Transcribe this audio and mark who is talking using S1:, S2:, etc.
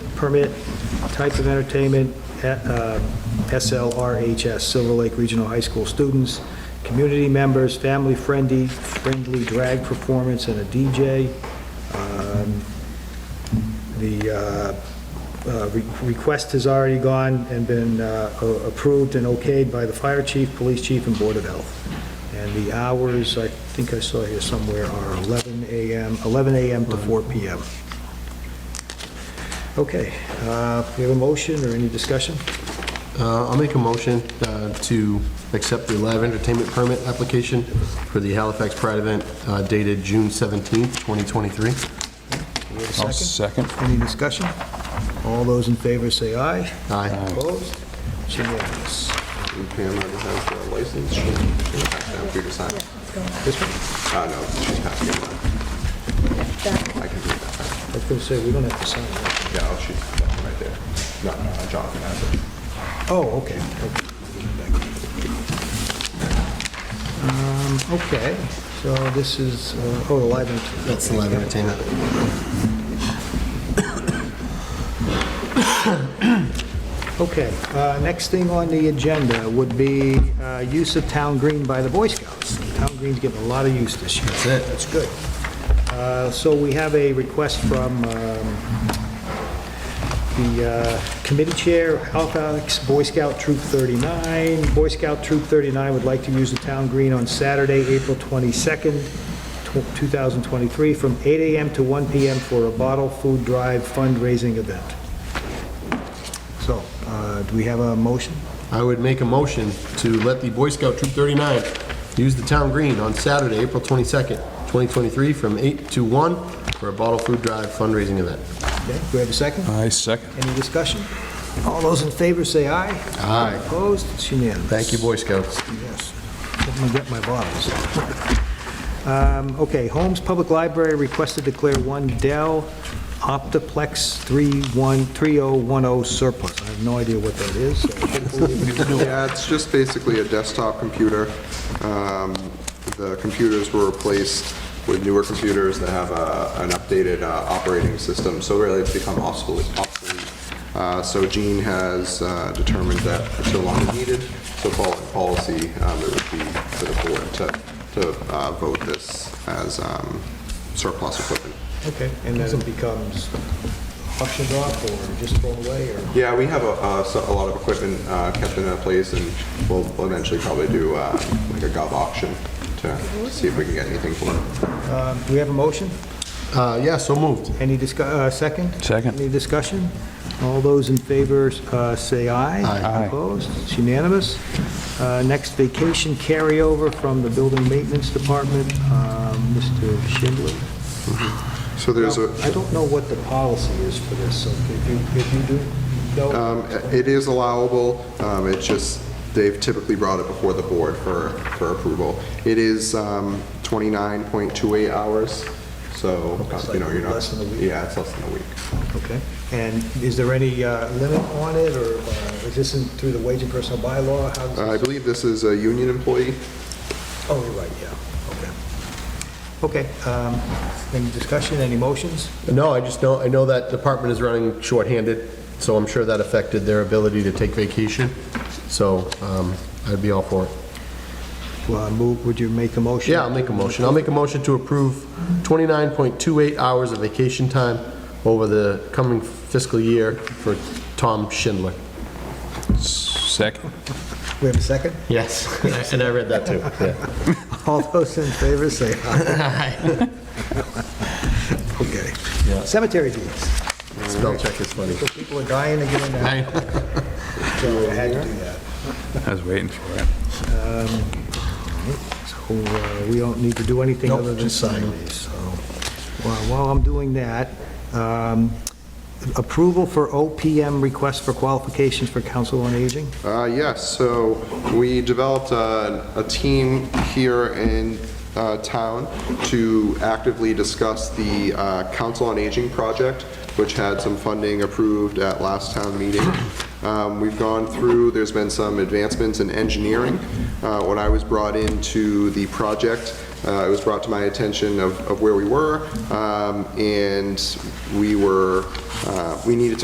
S1: permit, type of entertainment, uh, SLRHS, Silver Lake Regional High School students, community members, family-friendly, friendly drag performance, and a DJ. Um, The uh, uh, re- request has already gone and been uh, a- approved and okayed by the fire chief, police chief, and Board of Health. And the hours, I think I saw here somewhere, are 11 a.m., 11 a.m. to 4 p.m. Okay, uh, we have a motion or any discussion?
S2: Uh, I'll make a motion uh, to accept the live entertainment permit application for the Halifax Pride event uh, dated June 17th, 2023.
S1: Do we have a
S3: I'll
S1: second?
S3: second.
S1: Any discussion? All those in favor say aye.
S2: Aye.
S1: Opposed? It's unanimous.
S4: Pam, I just have a license. She'll pass down for you to sign.
S1: This one,
S4: Uh, no, she's passing it on. I can do that.
S1: I was going to say, we don't have to sign that.
S4: Yeah, I'll shoot that one right there. No, no, Jonathan has it.
S1: Oh, okay. okay. Um, Okay, so this is, uh, oh, the live entertainment.
S2: That's the live entertainment.
S1: Okay, uh, next thing on the agenda would be uh, use of town green by the Boy Scouts. Town green's getting a lot of use this year. That's
S2: it.
S1: That's good. Uh, So we have a request from um, the uh, committee chair, Halifax Boy Scout Troop 39. Boy Scout Troop 39 would like to use the town green on Saturday, April 22nd, tw- 2023, from 8 a.m. to 1 p.m. for a bottle food drive fundraising event. So, uh, do we have a motion?
S2: I would make a motion to let the Boy Scout Troop 39 use the town green on Saturday, April 22nd, 2023, from 8 to 1 for a bottle food drive fundraising event.
S1: Okay, do we have a second?
S3: I second.
S1: Any discussion? All those in favor say aye.
S2: Aye.
S1: Opposed? It's unanimous.
S2: Thank you, Boy Scouts.
S1: Yes. Let me get my bottles. Um, Okay, Holmes Public Library requested to declare one Dell Optiplex 31 3010 surplus. I have no idea what that is. so hopefully we can do it.
S4: Yeah, it's just basically a desktop computer. Um, The computers were replaced with newer computers that have a- an updated uh, operating system, so really it's become obsolete. obsolete. Uh, So Gene has uh, determined that it's no longer needed, so following policy, um, it would be for the board to to uh, vote this as um, surplus equipment.
S1: Okay, and then it becomes auctioned off or just thrown away or?
S4: Yeah, we have a, a so- a lot of equipment uh, kept in that place, and we'll we'll eventually probably do uh, like a gov auction to see if we can get anything for it.
S1: Uh, Do we have a motion?
S2: Uh, Yeah, so moved.
S1: Any discuss, uh, second?
S3: Second.
S1: Any discussion? All those in favor, uh, say aye.
S2: Aye.
S3: Aye.
S1: Opposed? It's unanimous. Uh, next, vacation carryover from the building maintenance department, um, Mr. Schindler.
S4: So there's a,
S1: I don't know what the policy is for this, so if you, if you do, no?
S4: um, it is allowable, um, it's just, they've typically brought it before the board for, for approval. It is um, 29.28 hours, so, uh,
S1: It's
S4: you
S1: like
S4: know, you're not.
S1: less than a week.
S4: Yeah, it's less than a week.
S1: Okay. And is there any, uh, limit on it, or, uh, is this in, through the wage and personal bylaw? How does
S4: Uh,
S1: this-
S4: I believe this is a union employee. Uh.
S1: Oh, you're right, yeah, okay. Okay, um, any discussion, any motions?
S2: No, I just know, I know that department is running shorthanded, so I'm sure that affected their ability to take vacation, so um, I'd be all for it.
S1: Well, I move, would you make a motion?
S2: Yeah, I'll make a motion. I'll make a motion to approve 29.28 hours of vacation time over the coming fiscal year for Tom Schindler.
S3: Second.
S1: We have a second?
S2: Yes, and I read that too, yeah.
S1: All those in favor say aye. Okay. Cemetery deeds.
S2: Spell check is funny.
S1: So people are dying to get in there, so I had to do that.
S3: I was waiting for it.
S1: So uh, we don't need to do anything
S2: Nope,
S1: other than
S2: just
S1: sign
S2: sign.
S1: these, so. While while I'm doing that, um, approval for OPM request for qualifications for council on aging?
S4: Uh, Yes, so we developed a, a team here in uh, town to actively discuss the uh, Council on Aging project, which had some funding approved at last town meeting. Um, We've gone through, there's been some advancements in engineering. Uh, When I was brought into the project, uh, it was brought to my attention of, of where we were, um, and we were, uh, we needed to